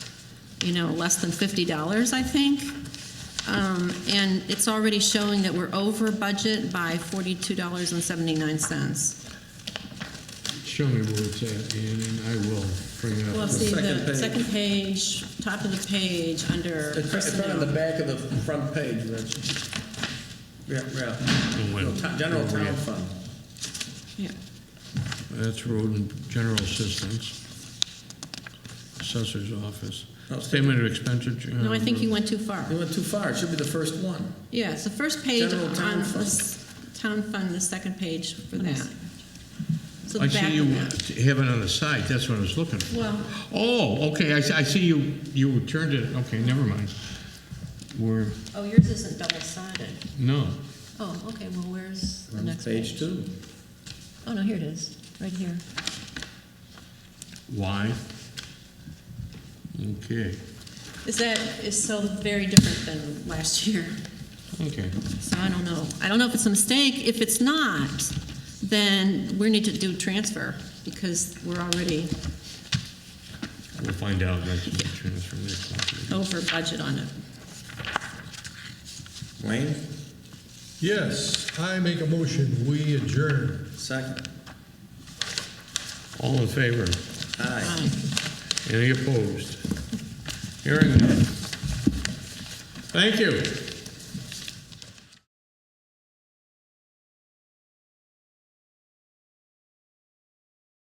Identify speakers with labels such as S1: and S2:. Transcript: S1: you know, less than $50, I think. Um, And it's already showing that we're over budget by $42.79.
S2: Show me where it's at, Ian, and I will bring it
S1: Well,
S2: up.
S1: see,
S3: second
S1: the
S3: page.
S1: second page, top of the page, under
S3: It's right in front of the
S1: personnel.
S3: back of the front page, Rich. Yeah, yeah.
S2: Well,
S3: No, to- General
S2: well,
S3: Town
S2: yeah.
S3: Fund.
S1: Yeah.
S2: That's road and general assistance. Assessor's office.
S3: Oh,
S2: Statement of expenditure. uh,
S1: No, I think you went too far.
S3: You went too far, it should be the first one.
S1: Yeah, it's the first page
S3: General
S1: on
S3: town fund.
S1: this town fund, the second page for that. So
S2: I
S1: the back
S2: see you
S1: of that.
S2: have it on the side, that's what I was looking for.
S1: Well-
S2: Oh, okay, I see, I see you, you turned it, okay, never mind. We're,
S1: Oh, yours isn't double-sided.
S2: no,
S1: Oh, okay, well, where's the
S3: On
S1: next
S3: Page
S1: page?
S3: two.
S1: Oh, no, here it is, right here.
S2: why? Okay,
S1: Is that, is so very different than last year,
S2: okay.
S1: so I don't know. I don't know if it's a mistake. If it's not, then we need to do transfer, because we're already
S2: We'll find out next week, transfer next month.
S1: over budget on it.
S3: Wayne,
S4: Yes, I make a motion, we adjourn.
S3: second.
S2: All in favor?
S3: Aye.
S1: Fine.
S2: Any opposed? Hearing none. Thank you.